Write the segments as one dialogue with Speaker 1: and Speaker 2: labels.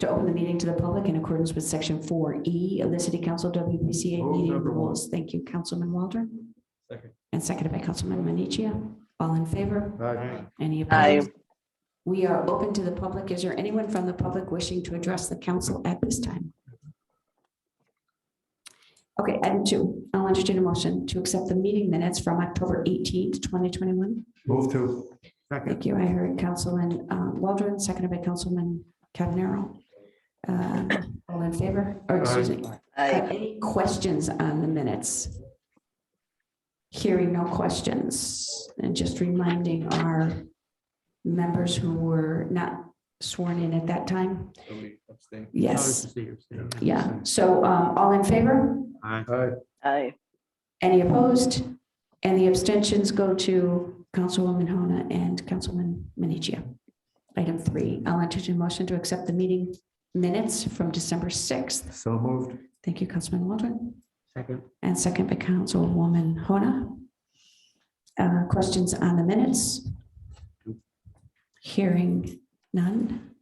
Speaker 1: to open the meeting to the public in accordance with section four E of the city council WPCA
Speaker 2: Move
Speaker 1: meeting
Speaker 2: number one.
Speaker 1: rules. Thank you, Councilman Waldron.
Speaker 2: Second.
Speaker 1: And seconded by Councilman Manichia. All in favor?
Speaker 2: Aye.
Speaker 1: Any opposed? We are open to the public. Is there anyone from the public wishing to address the council at this time? Okay, item two, I'll entertain a motion to accept the meeting minutes from October eighteenth, twenty twenty-one.
Speaker 2: Move to. Second.
Speaker 1: Thank you. I heard Councilman uh, Waldron, seconded by Councilman Cavanero. Uh, All in favor? Or excuse me. Uh, Any questions on the minutes? Hearing no questions, and just reminding our members who were not sworn in at that time. Yes, yeah. So um, all in favor?
Speaker 2: Aye.
Speaker 3: Aye.
Speaker 1: Any opposed? And the abstentions go to Councilwoman Hona and Councilman Minichia. Item three, I'll entertain a motion to accept the meeting minutes from December 6th.
Speaker 2: So moved.
Speaker 1: Thank you, Councilman Waldron.
Speaker 2: Second.
Speaker 1: And second by Councilwoman Hona. Uh, Questions on the minutes? Hearing none.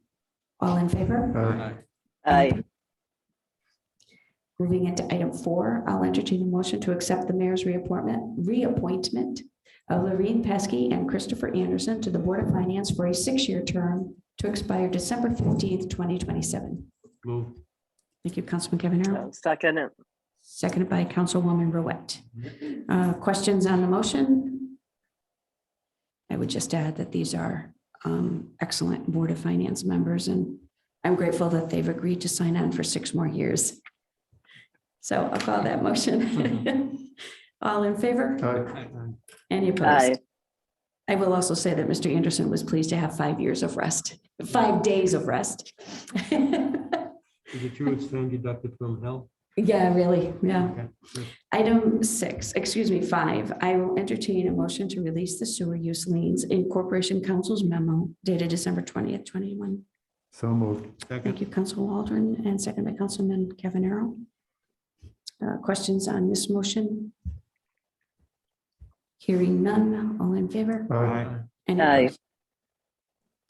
Speaker 1: All in favor?
Speaker 2: Aye.
Speaker 3: Aye.
Speaker 1: Moving into item four, I'll entertain a motion to accept the mayor's reappointment, reappointment of Lorraine Pesky and Christopher Anderson to the Board of Finance for a six-year term to expire December fifteenth, twenty twenty-seven.
Speaker 2: Move.
Speaker 1: Thank you, Councilman Kevin.
Speaker 3: I'll Second it.
Speaker 1: Seconded by Councilwoman Ruette. Uh, Questions on the motion? I would just add that these are um, excellent Board of Finance members, and I'm grateful that they've agreed to sign on for six more years. So I'll call that motion. All in favor?
Speaker 2: Aye.
Speaker 1: Any
Speaker 3: Aye.
Speaker 1: opposed? I will also say that Mr. Anderson was pleased to have five years of rest, five days of rest.
Speaker 4: Is it true it's time deducted from health?
Speaker 1: Yeah, really, yeah.
Speaker 4: Okay.
Speaker 1: Item six, excuse me, five, I will entertain a motion to release the sewer use liens in Corporation Council's memo dated December twentieth, twenty-one.
Speaker 2: So moved.
Speaker 1: Thank
Speaker 4: Second,
Speaker 1: you, Council Waldron, and second by Councilman Cavanero. Uh, Questions on this motion? Hearing none, all in favor?
Speaker 2: Aye.
Speaker 1: Any
Speaker 3: Aye.
Speaker 1: opposed?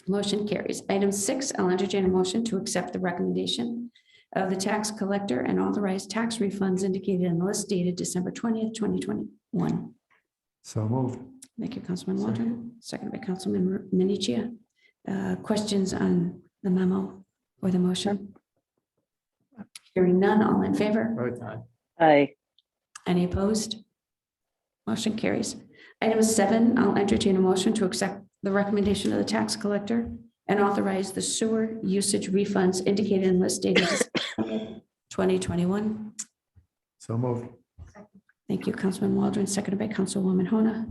Speaker 1: Motion carries. Item six, I'll entertain a motion to accept the recommendation of the tax collector and authorize tax refunds indicated in the list dated December twentieth, twenty twenty-one.
Speaker 2: So moved.
Speaker 1: Thank you, Councilman Waldron, second by Councilman Minichia. Uh, Questions on the memo or the motion? Hearing none, all in favor?
Speaker 2: Aye.
Speaker 3: Aye.
Speaker 1: Any opposed? Motion carries. Item seven, I'll entertain a motion to accept the recommendation of the tax collector and authorize the sewer usage refunds indicated in list dated twenty twenty-one.
Speaker 2: So moved.
Speaker 1: Thank you, Councilman Waldron, seconded by Councilwoman Hona.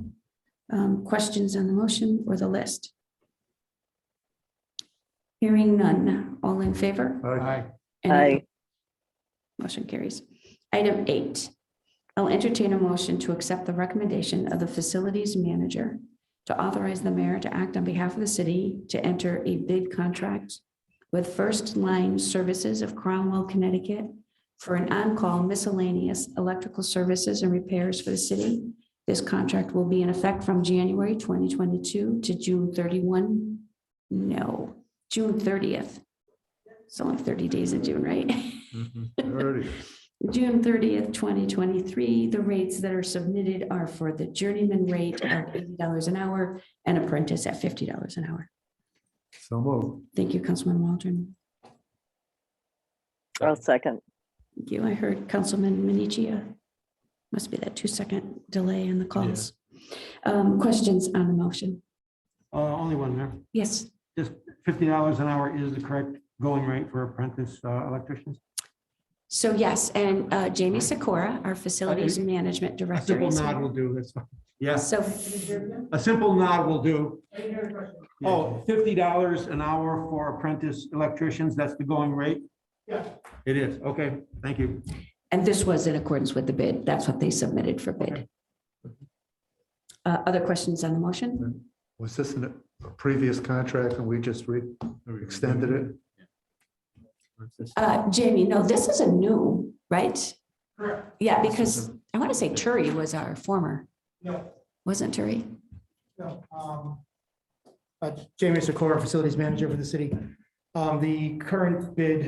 Speaker 1: Um, Questions on the motion or the list? Hearing none. All in favor?
Speaker 2: Aye.
Speaker 1: Any
Speaker 3: Aye.
Speaker 1: Motion carries. Item eight, I'll entertain a motion to accept the recommendation of the facilities manager to authorize the mayor to act on behalf of the city to enter a bid contract with First Line Services of Cromwell, Connecticut for an on-call miscellaneous electrical services and repairs for the city. This contract will be in effect from January 2022 to June 31, no, June 30th. It's only 30 days in June, right?
Speaker 4: Mm-hmm.
Speaker 2: Already.
Speaker 1: June thirtieth, twenty twenty-three, the rates that are submitted are for the journeyman rate of eighty dollars an hour and apprentice at fifty dollars an hour.
Speaker 2: So moved.
Speaker 1: Thank you, Councilman Waldron.
Speaker 3: I'll second.
Speaker 1: Thank you. I heard Councilman Minichia. Must be that two-second delay in the calls. Um, questions on the motion?
Speaker 4: Uh, only one there.
Speaker 1: Yes,
Speaker 4: Just fifty dollars an hour is the correct going rate for apprentice uh, electricians?
Speaker 1: so yes, and uh, Jamie Sikora, our Facilities Management
Speaker 4: A
Speaker 1: Director.
Speaker 4: simple
Speaker 1: is
Speaker 4: nod
Speaker 1: here.
Speaker 4: will do, that's fine. Yes,
Speaker 1: So,
Speaker 4: a simple nod will do. Oh, fifty dollars an hour for apprentice electricians, that's the going rate? Yeah. It is, okay, thank you.
Speaker 1: and this was in accordance with the bid. That's what they submitted for bid. Uh, other questions on the motion?
Speaker 2: Was this in a previous contract and we just re- extended it?
Speaker 1: Uh, Jamie, no, this is a new, right?
Speaker 5: Correct.
Speaker 1: Yeah, because I want to say Turi was our former,
Speaker 5: No,
Speaker 1: wasn't Turi?
Speaker 5: no. um, uh, Jamie Sikora, Facilities Manager for the city. Um, Um, the current bid